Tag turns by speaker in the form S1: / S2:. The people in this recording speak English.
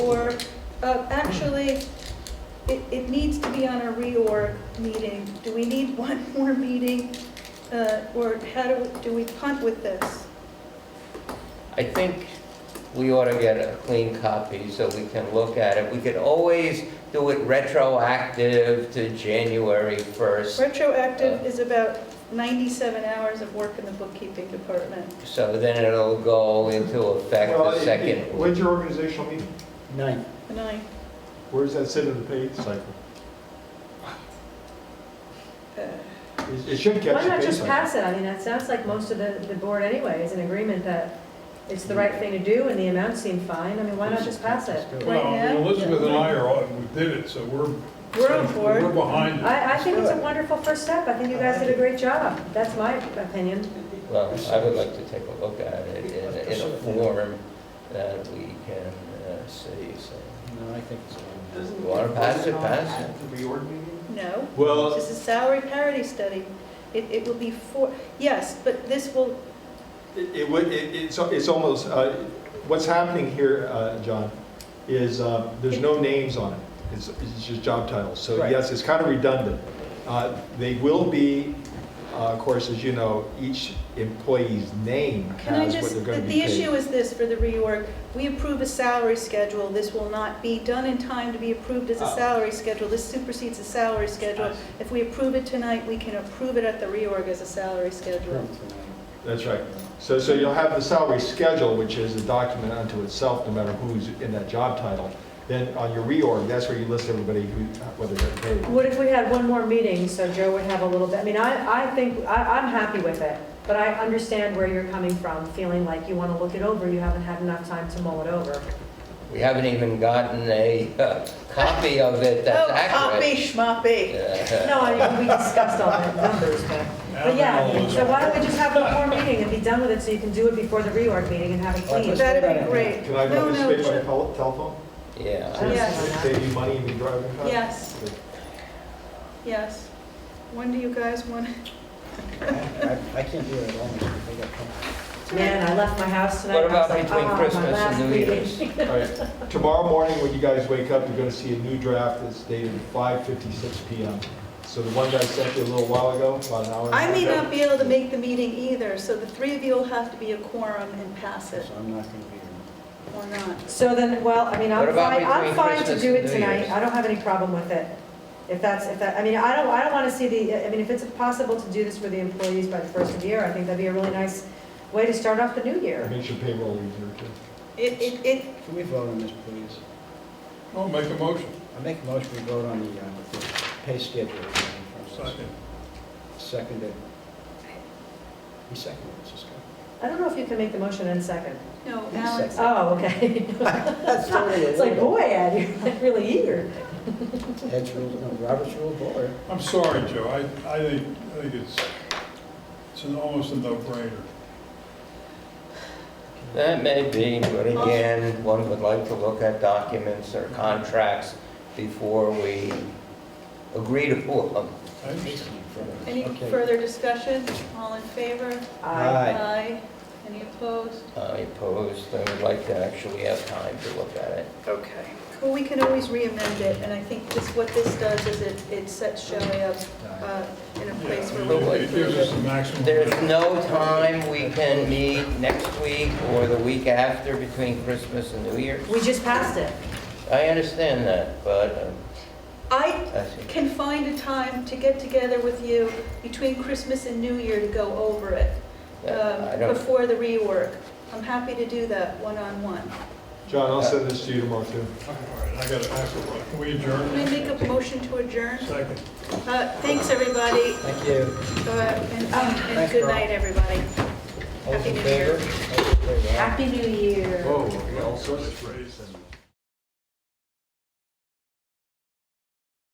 S1: Uh, Actually, it, it needs to be on a reorg meeting. Do we need one more meeting? Uh, Or how do, we- do we punt with this?
S2: I think we ought to get a clean copy so we can look at it. We could always do it retroactive to January 1st,
S1: Retroactive is about 97 hours of work in the bookkeeping department.
S2: so then it'll go into effect
S3: Well,
S2: the
S3: it- it-
S2: second.
S3: When's your organizational meeting?
S4: Nine.
S1: And I,
S3: Where does that sit in the pay cycle?
S1: uh,
S3: It- It should catch
S5: Why
S3: the
S5: not
S3: pay
S5: just
S3: cycle.
S5: pass it? I mean, that sounds like most of the, the board anyway is in agreement that it's the right thing to do and the amounts seem fine. I mean, why not just pass it?
S1: Right
S6: Well, I mean,
S1: now?
S6: Elizabeth and I are, on- we did it, so we're,
S1: we're on
S6: we're
S1: board.
S6: behind it.
S5: I, I think it's a wonderful first step. I think you guys did a great job. That's my opinion.
S2: Well, I would like to take a look at it in in a form that we can uh, see, so.
S4: No, I think it's fine.
S2: You want to pass it, pass it.
S1: No,
S3: Well,
S1: this is a salary parity study. It, it will be four, yes, but this will,
S3: It it would, it- it's, it's almost, uh, what's happening here, uh, John, is uh, there's no names on it. It's, it's just job titles. So
S4: Right.
S3: yes, it's kind of redundant. Uh, They will be, uh, of course, as you know, each employee's name
S1: Can I
S3: has what
S1: just,
S3: they're
S1: the
S3: going to be
S1: the
S3: paid.
S1: issue is this for the reorg, we approve a salary schedule, this will not be done in time to be approved as a
S3: Oh.
S1: salary schedule, this supersedes the salary schedule. If we approve it tonight, we can approve it at the reorg as a salary schedule.
S3: That's right. So, so you'll have the salary schedule, which is a document unto itself, no matter who's in that job title. Then on your reorg, that's where you list everybody who, whether they're paid.
S5: What if we had one more meeting so Joe would have a little bit, I mean, I, I think, I, I'm happy with it, but I understand where you're coming from, feeling like you want to look it over, you haven't had enough time to mull it over.
S2: We haven't even gotten a uh, copy of it that's
S1: Oh,
S2: accurate.
S1: copy schmoppy.
S2: Uh,
S5: No, I mean, we discussed all the numbers, but, but yeah, so why don't we just have one more meeting and be done with it so you can do it before the reorg meeting and have it clean?
S1: That'd be great.
S3: Can I
S1: No, no,
S3: participate by
S1: sure. Uh,
S3: tele- telephone?
S2: Yeah.
S5: Yes.
S3: Save you money in your driving time?
S1: Yes, yes. When do you guys want?
S4: I, I can't do it at all, I got company.
S5: Man, I left my house tonight.
S2: What
S5: I was
S2: about
S5: like,
S2: between
S5: "Ah, my
S2: Christmas
S5: last
S2: and New
S5: meeting."
S2: Year's?
S3: All right. Tomorrow morning, when you guys wake up, you're gonna see a new draft that's dated 5:56 PM. So the one that I sent you a little while ago, about an hour and a half
S1: I may
S3: ago.
S1: not be able to make the meeting either, so the three of you will have to be a quorum and pass it,
S4: so I'm not gonna be here.
S1: or not.
S5: So then, well, I mean,
S2: What
S5: I'm
S2: about
S5: fine, I'm
S2: between
S5: fine to
S2: Christmas
S5: do
S2: and
S5: it
S2: New Year's?
S5: tonight, I don't have any problem with it. If that's, if that, I mean, I don't, I don't want to see the, I mean, if it's possible to do this for the employees by the first of the year, I think that'd be a really nice way to start off the new
S3: It
S5: year.
S3: Makes your payroll easier too.
S1: It, it, it,
S4: Can we vote on this, please?
S6: I'll make a motion.
S4: I make a motion, we vote on the, uh, the pay schedule. in front of us.
S6: Second.
S4: Seconded. He seconded, it's just. go.
S5: I don't know if you can make the motion in second.
S1: no, Alex,
S5: Oh, okay.
S4: That's totally
S5: It's like,
S4: illegal.
S5: boy, Ed, you're like really eager.
S4: Ed's rule, no, Robert's rule of order.
S6: I'm sorry, Joe, I, I think, I think it's, it's an almost a no-brainer.
S2: That may be, but again, one would like to look at documents or contracts before we agree to pull them.
S6: I-
S1: any
S4: Okay.
S1: further discussion? All in favor?
S5: I-
S4: Aye.
S1: Any opposed?
S2: I opposed, I would like to actually have time to look at it.
S1: Okay. Well, we can always re-amend it, and I think this, what this does is it, it sets Shelley up uh, in a
S6: yeah,
S1: place
S6: I mean,
S1: where
S2: we'll
S6: It it gives us the
S1: we...
S6: maximum.
S2: There's no time we can meet next week or the week after between Christmas and New Year's.
S5: We just passed it.
S2: I understand that, but, um,
S1: I
S2: I think-
S1: can find a time to get together with you between Christmas and New Year to go over it,
S2: I
S1: um,
S2: don't,
S1: before the rework. I'm happy to do that one-on-one.
S3: John, I'll send this to you tomorrow too.
S6: All right, I gotta ask a question. Can we
S1: Can I
S6: adjourn?
S1: make a motion to adjourn?
S6: Second.
S1: Uh, Thanks, everybody,
S4: Thank you.
S1: uh, and and
S4: Thanks,
S1: good
S4: Carl.
S1: night, everybody.
S4: All those
S1: Happy
S4: in
S1: New Year.
S4: favor? All those in favor, aye.
S5: Happy New Year.
S3: Whoa, Oh, all sorts of
S6: Raise.
S3: things.